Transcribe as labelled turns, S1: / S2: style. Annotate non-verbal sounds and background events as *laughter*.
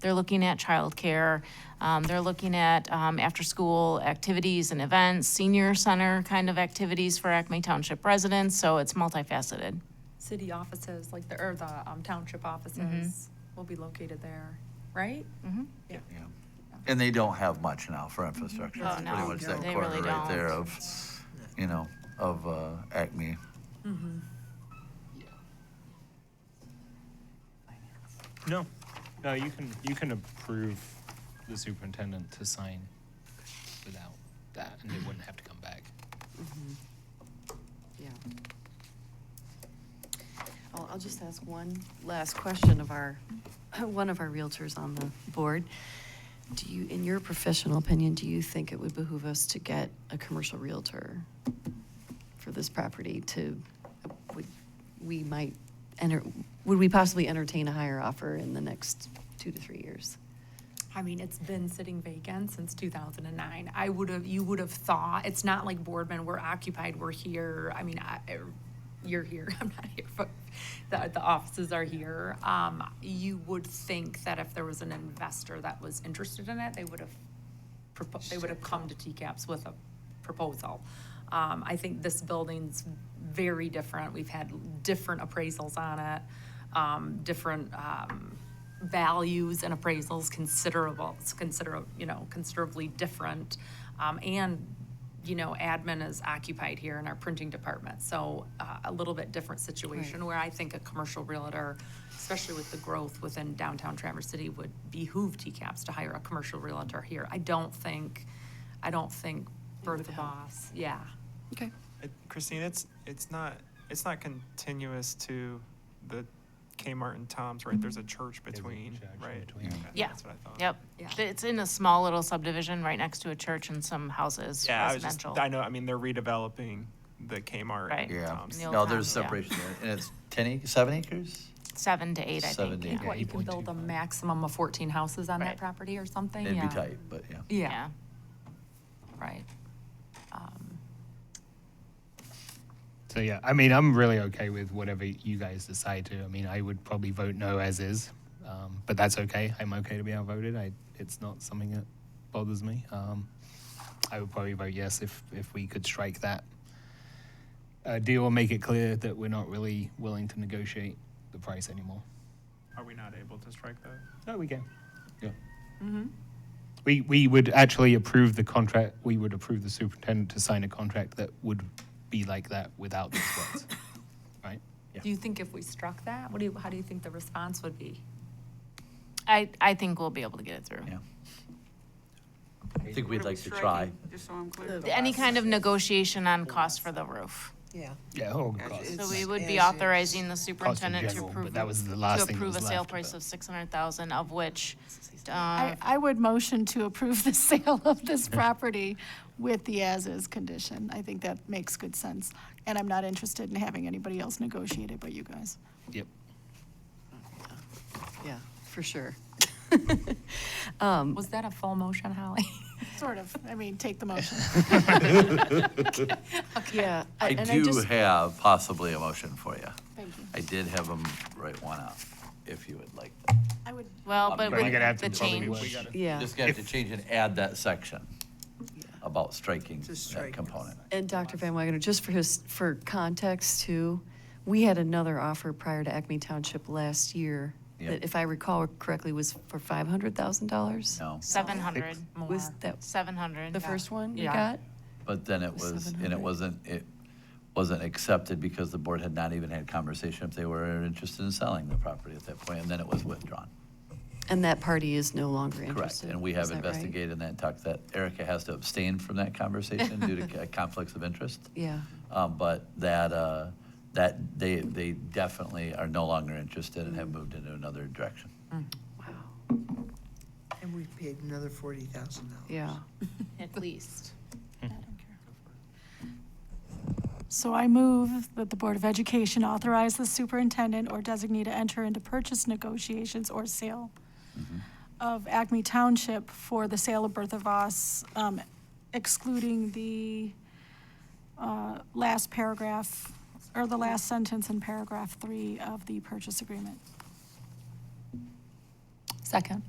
S1: They're looking at childcare. Um, they're looking at um, after-school activities and events, senior center kind of activities for Acme Township residents. So it's multifaceted.
S2: City offices, like the, or the um, township offices will be located there, right?
S3: Yeah, And they don't have much now for infrastructure.
S1: Oh,
S3: It's
S1: no,
S3: Pretty much that
S1: they
S3: corner
S1: really
S3: right there
S1: don't.
S3: of, you know, of uh, Acme.
S4: No, no, you can, you can approve the superintendent to sign without that, and they wouldn't have to come back.
S5: Yeah. I'll, I'll just ask one last question of our, *clears throat* one of our realtors on the board. Do you, in your professional opinion, do you think it would behoove us to get a commercial realtor for this property to, would, we might enter, would we possibly entertain a higher offer in the next two to three years?
S2: I mean, it's been sitting vacant since two thousand and nine. I would have, you would have thought, it's not like Boardman, we're occupied, we're here. I mean, I, er, you're here, *laughs* I'm not here, but the, the offices are here. Um, you would think that if there was an investor that was interested in it, they would have, propo- they would have come to TCAPS with a proposal. Um, I think this building's very different. We've had different appraisals on it, um, different, um, values and appraisals considerable, it's consider, you know, considerably different. Um, and, you know, admin is occupied here in our printing department, so, uh, a little bit different situation where I think a commercial realtor, especially with the growth within downtown Traverse City, would behoove TCAPS to hire a commercial realtor here. I don't think, I don't think Bertha Boss, yeah.
S5: Okay.
S6: It- Christine, it's, it's not, it's not continuous to the Kmart and Tom's, right? There's a church
S4: There's a
S6: between,
S4: church in
S6: right?
S4: between.
S6: Okay,
S2: Yeah.
S6: That's what I thought.
S1: Yep.
S2: Yeah.
S1: It's in a small little subdivision right next to a church and some houses,
S6: Yeah, I was just,
S1: residential.
S6: I know, I mean, they're redeveloping the Kmart
S1: Right.
S6: and
S3: Yeah.
S6: Tom's.
S1: The old
S3: No, there's
S1: towns, yeah.
S3: separation there. And it's 10 acres, seven acres?
S1: Seven to eight, I
S3: Seven
S1: think.
S3: to
S1: yeah.
S3: eight.
S2: What, you can build a
S4: 8.25.
S2: maximum of fourteen houses on
S1: Right.
S2: that property or something, yeah.
S3: It'd be tight, but yeah.
S2: Yeah.
S1: Yeah.
S2: Right. Um,
S4: So, yeah, I mean, I'm really okay with whatever you guys decide to. I mean, I would probably vote no as is, um, but that's okay. I'm okay to be outvoted. I, it's not something that bothers me. Um, I would probably vote yes if, if we could strike that uh, deal and make it clear that we're not really willing to negotiate the price anymore.
S6: Are we not able to strike that?
S4: No, we can. Yeah.
S1: Mm-hmm.
S4: We, we would actually approve the contract, we would approve the superintendent to sign a contract that would be like that without these
S1: *laughs*
S4: words, right?
S2: Do you think if we struck that, what do you, how do you think the response would be?
S1: I, I think we'll be able to get it through.
S3: Yeah. I think
S7: What
S3: we'd
S7: are we
S3: like to try.
S7: striking? Just so I'm clear.
S1: Any kind of negotiation on cost for the roof.
S8: Yeah.
S4: Yeah, oh,
S7: As
S4: God.
S7: is.
S1: So
S7: It's
S1: we would
S8: as
S1: be
S8: is.
S1: authorizing the superintendent to
S4: general,
S1: approve.
S4: but that was the last
S1: To
S4: thing that
S1: approve a
S4: was
S1: sale
S4: left,
S1: price
S4: but-
S1: of six hundred thousand, of which,
S9: I,
S1: Um,
S9: I would motion to approve the *laughs* sale of this property with the as-is condition. I think that makes good sense. And I'm not interested in having anybody else negotiate it but you guys.
S4: Yep.
S5: Yeah, for sure.
S3: Um,
S2: Was that a full motion, Holly? *laughs*
S9: Sort of, I mean, take the motion.
S5: Yeah.
S3: I
S5: and
S3: do
S5: just-
S3: have possibly a motion for you.
S9: Thank you.
S3: I did have them write one out, if you would like.
S9: I would,
S1: well, but
S3: But
S4: But
S3: we're
S4: you're gonna
S1: with
S4: have
S1: the
S4: to.
S1: change.
S5: Yeah.
S3: Just gonna have to change and add that section about striking that
S8: strike.
S3: component.
S5: And Dr. Van Wagner, just for his, for context too, we had another offer prior to Acme Township last year
S3: Yep.
S5: that, if I recall correctly, was for five hundred thousand dollars?
S3: No,
S1: Seven hundred,
S5: Was that
S1: seven hundred.
S5: the first one we
S2: Yeah.
S5: got?
S3: but then it was, and it
S5: 700.
S3: wasn't, it wasn't accepted because the board had not even had conversation if they were interested in selling the property at that point, and then it was withdrawn.
S5: And that party is no longer
S3: Correct,
S5: interested?
S3: and we
S5: is
S3: have
S5: that right?
S3: investigated that and talked that Erica has to abstain from that conversation due
S5: *laughs*
S3: to conflicts of interest.
S5: Yeah,
S3: Um, But that, uh, that, they, they definitely are no longer interested and have moved into another direction.
S8: And we paid another forty thousand dollars.
S5: yeah.
S1: At least.
S9: so I move that the Board of Education authorize the superintendent or designee to enter into purchase negotiations or sale of Acme Township for the sale of Bertha Voss, um, excluding the uh, last paragraph, or the last sentence in paragraph three of the purchase agreement.
S2: Second.